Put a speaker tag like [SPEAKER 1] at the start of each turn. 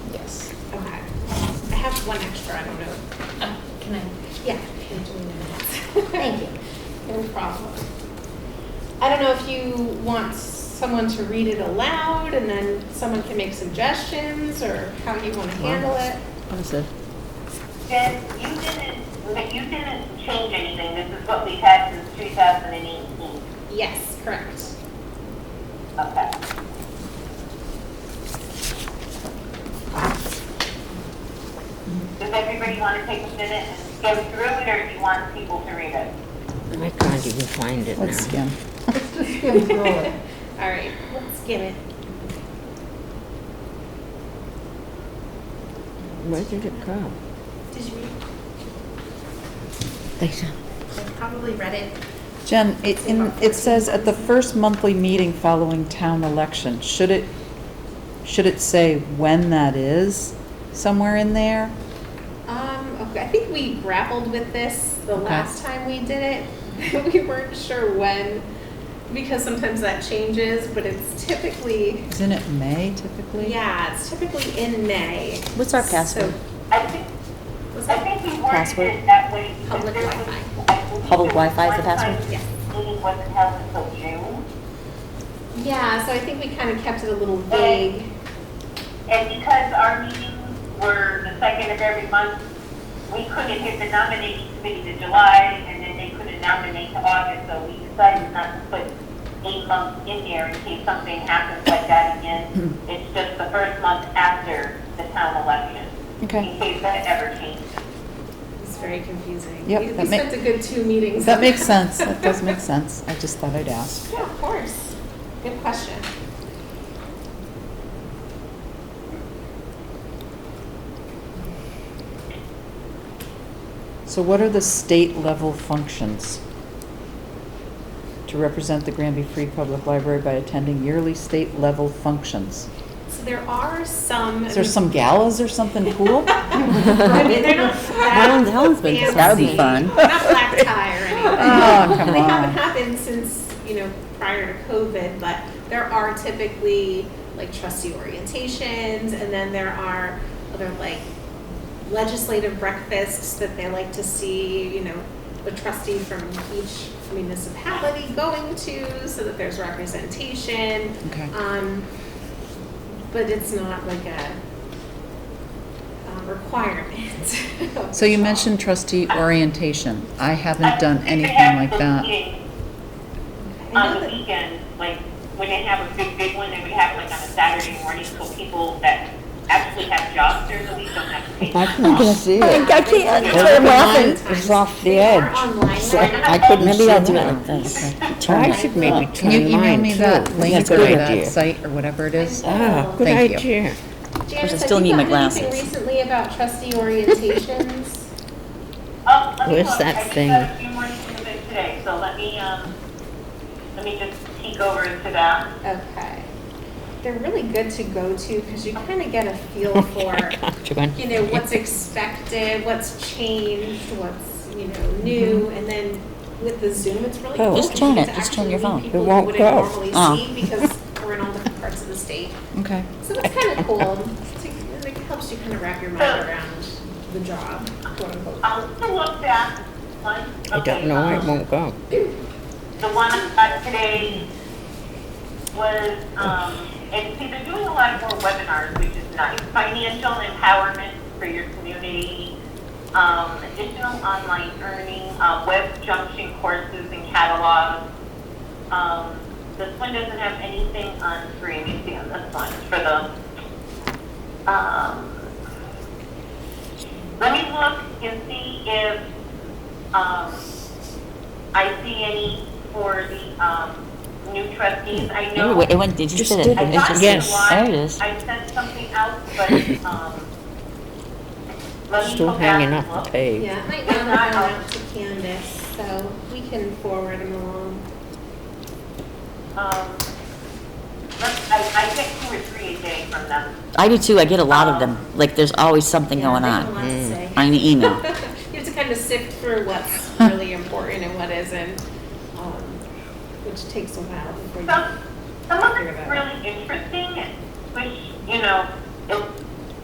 [SPEAKER 1] one extra, I don't know. Uh, Can I?
[SPEAKER 2] Yeah, Oh, thank you.
[SPEAKER 1] No problem. I don't know if you want someone to read it aloud and then someone can make suggestions or how you want to handle it.
[SPEAKER 3] Understood.
[SPEAKER 4] Jen, you didn't, you didn't change anything, this is what we've had since 2018.
[SPEAKER 1] Yes, correct.
[SPEAKER 4] Okay. Does everybody want to take a minute and go through it, or do you want people to read it?
[SPEAKER 5] I can't even find it
[SPEAKER 3] Let's
[SPEAKER 5] now.
[SPEAKER 3] skim.
[SPEAKER 1] All right, let's give it.
[SPEAKER 5] Where did it go?
[SPEAKER 2] Did you read?
[SPEAKER 5] Lisa.
[SPEAKER 2] I probably read it.
[SPEAKER 3] Jen, it, in, it says at the first monthly meeting following town election, should it, should it say when that is somewhere in there?
[SPEAKER 1] Um, okay, I think we grappled with this the
[SPEAKER 3] Okay.
[SPEAKER 1] last time we did it. We weren't sure when, because sometimes that changes, but it's typically,
[SPEAKER 3] Isn't it May typically?
[SPEAKER 1] yeah, it's typically in May.
[SPEAKER 5] What's our password?
[SPEAKER 4] I think,
[SPEAKER 1] So-
[SPEAKER 4] I think we worded
[SPEAKER 5] Password?
[SPEAKER 4] it that way. because
[SPEAKER 1] Public
[SPEAKER 4] there was-
[SPEAKER 1] Wi-Fi.
[SPEAKER 4] I believe
[SPEAKER 5] Public
[SPEAKER 4] there was
[SPEAKER 5] Wi-Fi is the
[SPEAKER 4] one time
[SPEAKER 5] password?
[SPEAKER 1] Yeah.
[SPEAKER 4] this Meeting wasn't held until June,
[SPEAKER 1] Yeah, so I think we kind of kept it a little vague.
[SPEAKER 4] and because our meetings were the second of every month, we couldn't hit the nominating committee to July, and then they couldn't nominate to August, so we decided not to put eight months in there in case something happens like that again.
[SPEAKER 3] Mm-hmm.
[SPEAKER 4] It's just the first month after the town election,
[SPEAKER 3] Okay,
[SPEAKER 4] in case that ever changes.
[SPEAKER 1] It's very confusing.
[SPEAKER 3] Yep,
[SPEAKER 1] We- We
[SPEAKER 3] that ma-
[SPEAKER 1] spent a good two meetings.
[SPEAKER 3] that makes sense, that does make sense, I just thought I'd ask.
[SPEAKER 1] Yeah, of course. Good question.
[SPEAKER 3] So what are the state level functions? To represent the Granby Free Public Library by attending yearly state level functions.
[SPEAKER 1] So there are some.
[SPEAKER 3] Is there some galas or something cool?
[SPEAKER 1] I mean, they're not
[SPEAKER 5] Helen's,
[SPEAKER 1] that
[SPEAKER 5] Helen's been,
[SPEAKER 1] fancy.
[SPEAKER 5] that would be fun.
[SPEAKER 1] Not black tie or anything.
[SPEAKER 3] Oh, come
[SPEAKER 1] They haven't
[SPEAKER 3] on.
[SPEAKER 1] happened since, you know, prior to COVID, but there are typically like trustee orientations and then there are other like legislative breakfasts that they like to see, you know, the trustee from each municipality going to so that there's representation.
[SPEAKER 3] Okay.
[SPEAKER 1] Um, but it's not like a um, requirement.
[SPEAKER 3] So you mentioned trustee orientation. I haven't done anything like that.
[SPEAKER 1] I
[SPEAKER 4] on
[SPEAKER 1] know
[SPEAKER 4] the
[SPEAKER 1] that-
[SPEAKER 4] weekends, like when they have a big, big one, they would have like on a Saturday morning, so people that actually have jobs during the week don't have to take.
[SPEAKER 5] I can't see it.
[SPEAKER 1] I can't.
[SPEAKER 5] That's why I'm laughing. It's off the edge.
[SPEAKER 1] Online.
[SPEAKER 5] I couldn't see that. Maybe I'll do it like this. I should maybe
[SPEAKER 3] Can you
[SPEAKER 5] turn
[SPEAKER 3] email
[SPEAKER 5] mine
[SPEAKER 3] me
[SPEAKER 5] too.
[SPEAKER 3] that link
[SPEAKER 5] That's a
[SPEAKER 3] or
[SPEAKER 5] good
[SPEAKER 3] that
[SPEAKER 5] idea.
[SPEAKER 3] site or whatever it is?
[SPEAKER 5] Ah, good
[SPEAKER 3] Thank you.
[SPEAKER 5] idea.
[SPEAKER 1] Janice,
[SPEAKER 5] I
[SPEAKER 1] have
[SPEAKER 5] still
[SPEAKER 1] you
[SPEAKER 5] need my
[SPEAKER 1] gotten anything
[SPEAKER 5] glasses.
[SPEAKER 1] recently about trustee orientations?
[SPEAKER 4] Oh, let me
[SPEAKER 5] Where's
[SPEAKER 4] look.
[SPEAKER 5] that thing?
[SPEAKER 4] I just got a few more to do it today, so let me, um, let me just peek over into that.
[SPEAKER 1] Okay. They're really good to go to because you kind of get a feel
[SPEAKER 5] Oh
[SPEAKER 1] for, you know, what's expected, what's changed, what's, you know, new.
[SPEAKER 5] Mm-hmm.
[SPEAKER 1] And then with the Zoom, it's really
[SPEAKER 5] Oh,
[SPEAKER 1] cool.
[SPEAKER 5] just
[SPEAKER 1] because
[SPEAKER 5] turn
[SPEAKER 1] you get
[SPEAKER 5] it.
[SPEAKER 1] to
[SPEAKER 5] Just turn
[SPEAKER 1] actually
[SPEAKER 5] your
[SPEAKER 1] meet
[SPEAKER 5] phone. It
[SPEAKER 1] people you
[SPEAKER 5] won't
[SPEAKER 1] wouldn't
[SPEAKER 5] go.
[SPEAKER 1] normally
[SPEAKER 5] Oh.
[SPEAKER 1] see because we're in all different parts of the state.
[SPEAKER 3] Okay.
[SPEAKER 1] So it's kind of cool. It's like- It helps you kind of wrap your mind around the job, quote unquote.
[SPEAKER 4] I'll still look back. One,
[SPEAKER 5] I
[SPEAKER 4] okay,
[SPEAKER 5] don't know why it
[SPEAKER 4] um,
[SPEAKER 5] won't go.
[SPEAKER 4] The one I got today was, um, and see, they're doing a lot more webinars, which is nice. Financial empowerment for your community, um, additional online earning, uh, web junction courses and catalogs. Um, this one doesn't have anything on free, let me see on this one, for the, um, let me look and see if, um, I see any for the um, new trustees. I know.
[SPEAKER 5] Anyway, it went, did you
[SPEAKER 3] Just
[SPEAKER 5] see it?
[SPEAKER 3] did
[SPEAKER 4] I
[SPEAKER 3] it.
[SPEAKER 5] It
[SPEAKER 4] thought
[SPEAKER 5] just-
[SPEAKER 4] it was.
[SPEAKER 5] There it is.
[SPEAKER 4] I sent something out, but um, let me
[SPEAKER 5] Still
[SPEAKER 4] go back
[SPEAKER 5] hanging
[SPEAKER 4] and
[SPEAKER 5] off the
[SPEAKER 4] look.
[SPEAKER 5] page.
[SPEAKER 1] Yeah, I emailed that one out to Candace, so we can forward them along.
[SPEAKER 4] Um, let's- I, I get two or three a day from them.
[SPEAKER 5] I do too. I get a lot of them. Like, there's always something
[SPEAKER 1] Yeah,
[SPEAKER 5] going
[SPEAKER 1] they have a lot
[SPEAKER 5] on.
[SPEAKER 1] to say.
[SPEAKER 5] On the email.
[SPEAKER 1] You have to kind of sift through what's really important and what isn't, um, which takes a while before you.
[SPEAKER 4] Some, some of it's really interesting, which, you know, it,